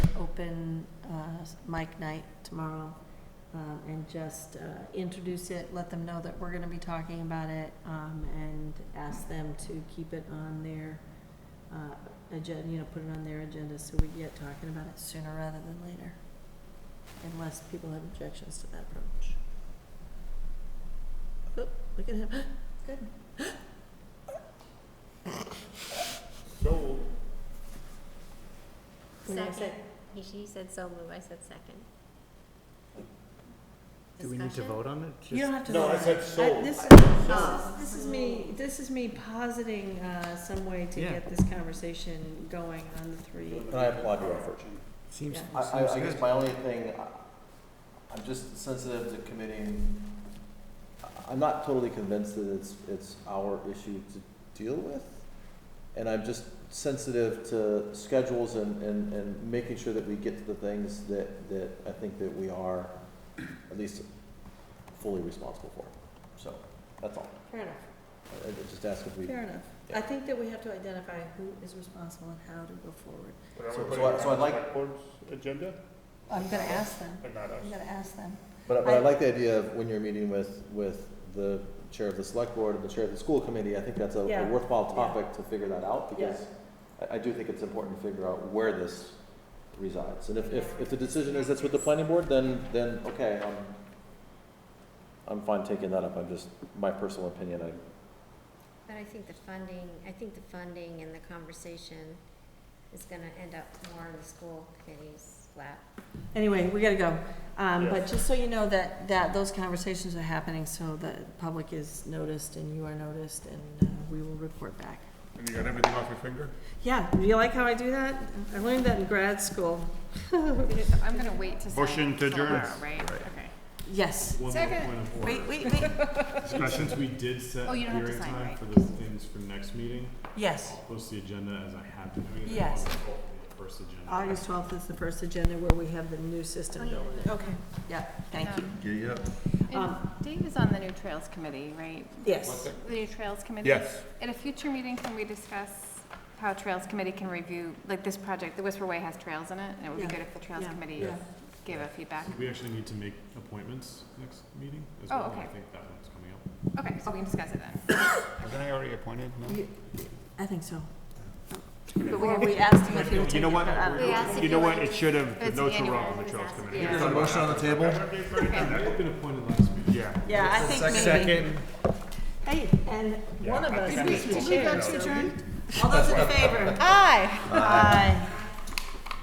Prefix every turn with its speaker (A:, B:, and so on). A: open uh, mic night tomorrow um, and just uh, introduce it, let them know that we're going to be talking about it, um, and ask them to keep it on their uh, agenda, you know, put it on their agenda so we get talking about it sooner rather than later, unless people have objections to that approach. Oh, look at him. Good.
B: So,
A: What do you say?
C: Second. He, she said so moved, I said second.
D: Do we need to
C: Discussion?
D: vote on it?
A: You don't have to.
B: no, I
A: vote.
B: said
A: I-
B: so.
A: This
C: Oh.
A: is, this is me, this is me positing uh, some way to
D: Yeah.
A: get this conversation going on the three.
B: And I applaud your effort.
D: Seems,
A: Yeah.
E: I, I, I
D: seems
E: guess
D: good.
E: my only thing, I- I'm just sensitive to committing, I- I'm not totally convinced that it's, it's our issue to deal with. And I'm just sensitive to schedules and, and, and making sure that we get to the things that, that I think that we are at least fully responsible for. So, that's all.
A: Fair enough,
E: I, I just ask if we,
A: fair enough. I think that we have to identify who is responsible and how to go forward.
B: But are we
E: So- so
B: putting
E: I-
B: it
E: so
B: on
E: I'd like-
B: select board's agenda,
A: I'm gonna ask them,
B: but not us?
A: I'm gonna ask them.
E: But, but I
A: I-
E: like the idea of when you're meeting with, with the chair of the select board and the chair of the school committee, I think that's a a
A: Yeah.
E: worthwhile
A: Yeah.
E: topic to figure that out,
A: Yeah.
E: because I, I do think it's important to figure out where this resides, and if, if, if the decision is that's with the planning board, then, then, okay, I'm, I'm fine taking that up, I'm just, my personal opinion, I,
C: But I think the funding, I think the funding and the conversation is gonna end up more in the school committee's lap.
A: Anyway, we gotta go. Um,
B: Yeah.
A: but just so you know that, that those conversations are happening, so the public is noticed and you are noticed and uh, we will report back.
B: And you got everything off your finger?
A: Yeah, do you like how I do that? I learned that in grad school.
F: I'm gonna wait to sign
B: Motion to adjourn.
F: tomorrow, right? Okay.
A: Yes.
G: One more
F: Second.
G: point of order.
A: Wait, wait, wait,
G: Since we did set
F: Oh,
G: a
F: you don't have to
G: hearing
F: sign,
G: time
F: right.
G: for those things for next meeting,
A: yes.
G: post the agenda as I have been doing it.
A: Yes.
G: on the First agenda.
A: August twelfth is the first agenda where we have the new system
C: Oh, yeah.
A: going in. Okay. Yeah, thank you.
F: Um,
B: Yeah, yeah.
F: And
A: Um,
F: Dave is on the new Trails Committee, right?
A: Yes,
F: The new Trails Committee?
B: Yes,
F: At a future meeting, can we discuss how Trails Committee can review, like this project, the Whisper Way has trails in it, and it would be
A: Yeah.
F: good if the Trails
A: Yeah.
F: Committee
A: Yeah.
F: gave a feedback.
G: We actually need to make appointments next meeting as
F: Oh,
G: well. and I
F: okay.
G: think that one's coming up.
F: Okay, so we can discuss it then.
B: wasn't I already appointed? No?
A: You- I think so.
F: But we
A: Or
F: have-
A: we asked him if he would
G: You
A: take
G: know
A: it,
G: what?
A: but I don't
C: We asked if
G: You
C: you
G: know what?
C: wanted-
G: It should have, the
F: It's
G: notes were
F: annual,
G: wrong,
F: it
G: the
F: was
G: Trails
F: asked,
G: Committee.
F: yeah. There's
G: a motion on the table?
F: Okay.
G: That would have been appointed last meeting.
B: Yeah.
A: Yeah, I think maybe. Hey, and one of us
F: Did we
A: needs to
F: did we
A: share.
F: vote to adjourn?
A: All those in favor? Aye. Aye.